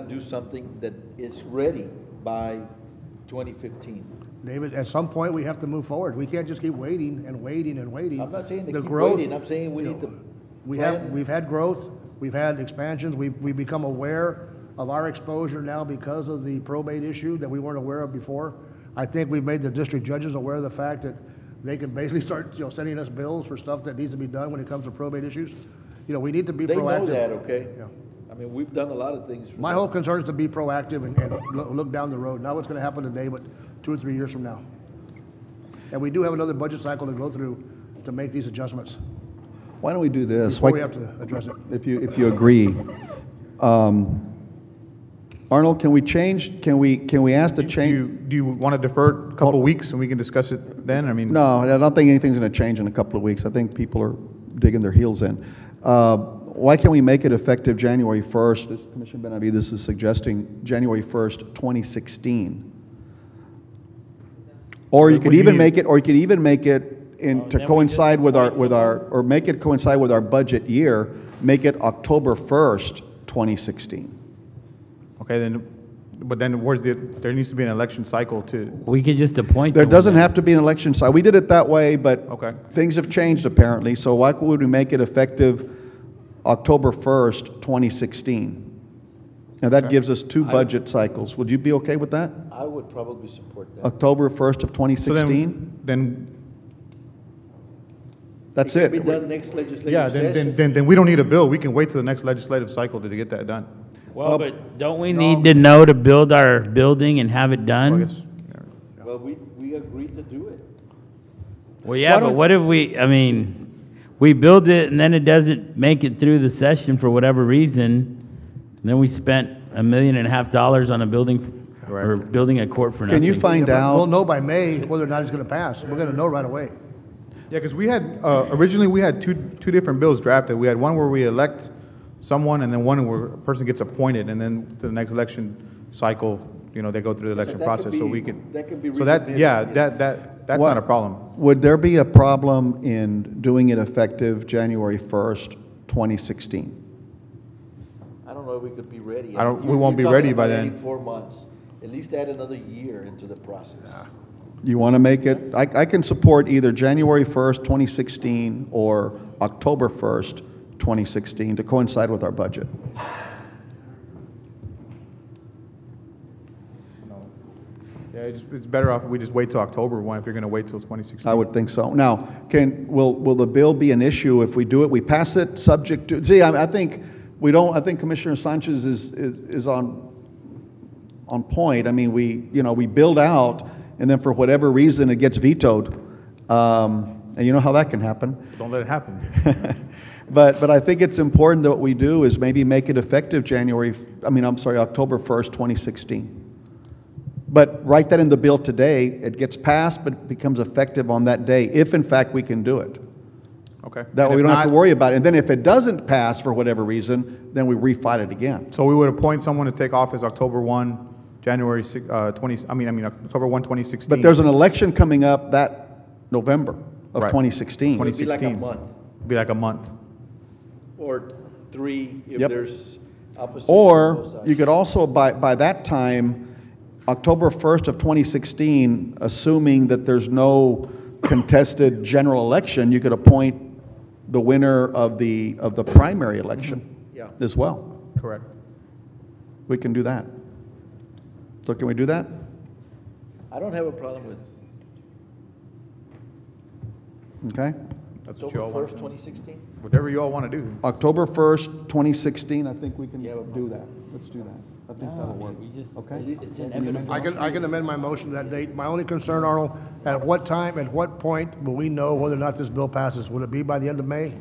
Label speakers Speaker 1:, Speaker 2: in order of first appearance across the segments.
Speaker 1: gotta do something that is ready by 2015.
Speaker 2: David, at some point, we have to move forward. We can't just keep waiting and waiting and waiting.
Speaker 1: I'm not saying to
Speaker 2: The
Speaker 1: keep
Speaker 2: growth-
Speaker 1: waiting, I'm saying we need to
Speaker 2: We have,
Speaker 1: plan.
Speaker 2: we've had growth, we've had expansions, we've, we've become aware of our exposure now because of the probate issue that we weren't aware of before. I think we've made the district judges aware of the fact that they can basically start, you know, sending us bills for stuff that needs to be done when it comes to probate issues. You know, we need to be
Speaker 1: They know
Speaker 2: proactive.
Speaker 1: that, okay?
Speaker 2: Yeah.
Speaker 1: I mean, we've done a lot of things. for
Speaker 2: My
Speaker 1: them.
Speaker 2: whole concern is to be proactive and, and loo- look down the road, not what's gonna happen today, but two or three years from now. And we do have another budget cycle to go through to make these adjustments,
Speaker 3: Why don't we do this?
Speaker 2: before we
Speaker 3: Why-
Speaker 2: have to address it.
Speaker 3: If you, if you agree. Um, Arnold, can we change, can we, can we ask to
Speaker 4: Do you,
Speaker 3: change?
Speaker 4: do you want to defer it a couple weeks and we can discuss it then? I mean.
Speaker 3: No, I don't think anything's going to change in a couple of weeks. I think people are digging their heels in. Uh, Why can't we make it effective January 1st? This Commissioner Benavides is suggesting January 1st, 2016. Or you
Speaker 4: What
Speaker 3: could
Speaker 4: do you
Speaker 3: even
Speaker 4: mean? Oh,
Speaker 3: make it, or you could even make it in, to coincide with our, with our, or make it coincide with our budget year, make it October 1st, 2016.
Speaker 4: Okay, then, but then where's the, there needs to be an election cycle to,
Speaker 5: We could just appoint.
Speaker 3: There
Speaker 5: someone
Speaker 3: doesn't
Speaker 5: then.
Speaker 3: have to be an election cycle. We did it that way, but
Speaker 4: Okay.
Speaker 3: things have changed apparently, so why would we make it effective October 1st, 2016? Now, that gives us two budget cycles. Would you be okay with that?
Speaker 1: I would probably support that.
Speaker 3: October 1st of
Speaker 4: so then-
Speaker 3: 2016?
Speaker 4: Then,
Speaker 3: That's
Speaker 1: It can
Speaker 3: it.
Speaker 1: be done next legislative
Speaker 4: yeah, then,
Speaker 1: session.
Speaker 4: then, then, then we don't need a bill. We can wait till the next legislative cycle to get that done.
Speaker 5: Well, but don't we need to know to build our building and have it
Speaker 4: I
Speaker 5: done?
Speaker 4: guess. yeah.
Speaker 1: Well, we, we agreed to do it.
Speaker 5: Well, yeah, but what if we, I mean, we build it and then it doesn't make it through the session for whatever reason. and Then we spent a million and a half dollars on a building, f- or building a court for nothing.
Speaker 3: Can you find
Speaker 2: Yeah, but We'll
Speaker 3: out?
Speaker 2: know by May whether or not it's gonna pass. We're gonna know right away.
Speaker 4: Yeah, because we had, uh, originally, we had two, two different bills drafted. We had one where we elect someone, and then one where a person gets appointed, and then the next election cycle, you know, they go through the election
Speaker 1: that could
Speaker 4: process, so
Speaker 1: be-
Speaker 4: we could.
Speaker 1: that could be
Speaker 4: So that,
Speaker 1: resubmitted,
Speaker 4: yeah,
Speaker 1: yeah.
Speaker 4: that, that, that's not a
Speaker 3: What-
Speaker 4: problem.
Speaker 3: Would there be a problem in doing it effective January 1st, 2016?
Speaker 1: I don't know if we could be ready.
Speaker 4: I don't- we
Speaker 1: You're-
Speaker 4: won't
Speaker 1: you're
Speaker 4: be ready
Speaker 1: talking
Speaker 4: by
Speaker 1: about
Speaker 4: then.
Speaker 1: adding Four months, at least add another year into the process.
Speaker 3: You want to make it, I, I can support either January 1st, 2016, or October 1st, 2016, to coincide with our budget.
Speaker 4: Yeah, it's, it's better off if we just wait till October one, if you're gonna wait till twenty sixteen.
Speaker 3: I would think so. Now, can, will, will the bill be an issue if we do it? We pass it subject to, see, I, I think, we don't, I think Commissioner Sanchez is, is, is on, on point. I mean, we, you know, we build out, and then for whatever reason, it gets vetoed. Um, and you know how that can happen.
Speaker 4: Don't let it happen.
Speaker 3: But, but I think it's important that what we do is maybe make it effective January, I mean, I'm sorry, October 1st, 2016. But write that in the bill today, it gets passed, but it becomes effective on that day, if in fact we can do it.
Speaker 4: Okay.
Speaker 3: That
Speaker 4: And
Speaker 3: way we
Speaker 4: if
Speaker 3: don't have to
Speaker 4: not-
Speaker 3: worry about it. And then if it doesn't pass for whatever reason, then we refile it again.
Speaker 4: So we would appoint someone to take office October one, January six, uh, twenty, I mean, I mean, October one, twenty sixteen.
Speaker 3: But there's an election coming up that November of
Speaker 4: Right.
Speaker 3: 2016.
Speaker 1: It'd be like a
Speaker 4: 2016.
Speaker 1: month,
Speaker 4: Be like a month.
Speaker 1: or three if
Speaker 3: Yep.
Speaker 1: there's opposition. on both
Speaker 3: Or
Speaker 1: sides.
Speaker 3: you could also, by, by that time, October 1st of 2016, assuming that there's no contested general election, you could appoint the winner of the, of the primary election
Speaker 1: Mm-hmm. Yeah.
Speaker 3: as well.
Speaker 4: Correct.
Speaker 3: We can do that. So can we do that?
Speaker 1: I don't have a problem with
Speaker 3: Okay?
Speaker 4: That's what you
Speaker 1: October
Speaker 4: all want.
Speaker 1: first, twenty sixteen.
Speaker 4: Whatever you all want to do.
Speaker 3: October 1st, 2016, I think we can
Speaker 1: Yeah, but- Oh,
Speaker 3: do that. Let's do that. I think that'll work.
Speaker 5: At
Speaker 3: Okay?
Speaker 5: least it's inevitable.
Speaker 2: I can, I can amend my motion to that date. My only concern, Arnold, at what time, at what point will we know whether or not this bill passes? Will it be by the end of May?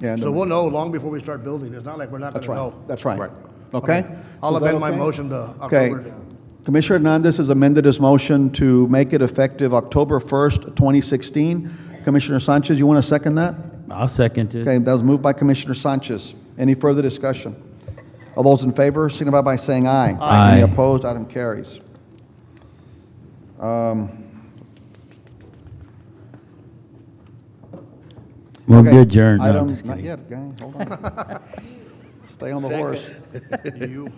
Speaker 3: Yeah, and-
Speaker 2: So we'll know long before we start building. It's not like we're not
Speaker 3: That's
Speaker 2: gonna
Speaker 3: right,
Speaker 2: know.
Speaker 3: that's right.
Speaker 4: Right.
Speaker 3: Okay?
Speaker 2: I'll
Speaker 3: So is that
Speaker 2: amend my
Speaker 3: okay?
Speaker 2: motion to
Speaker 3: Okay.
Speaker 2: October.
Speaker 3: Commissioner Hernandez has amended his motion to make it effective October 1st, 2016. Commissioner Sanchez, you want to second that?
Speaker 5: I'll second it.
Speaker 3: Okay, that was moved by Commissioner Sanchez. Any further discussion? All those in favor signify by saying aye.
Speaker 5: Aye.
Speaker 3: Any opposed, item carries.
Speaker 5: Move
Speaker 3: Okay,
Speaker 5: to adjourn. No, I'm
Speaker 3: item-
Speaker 5: just kidding.
Speaker 3: Not yet, guy, hold on. Stay on the horse.
Speaker 2: You,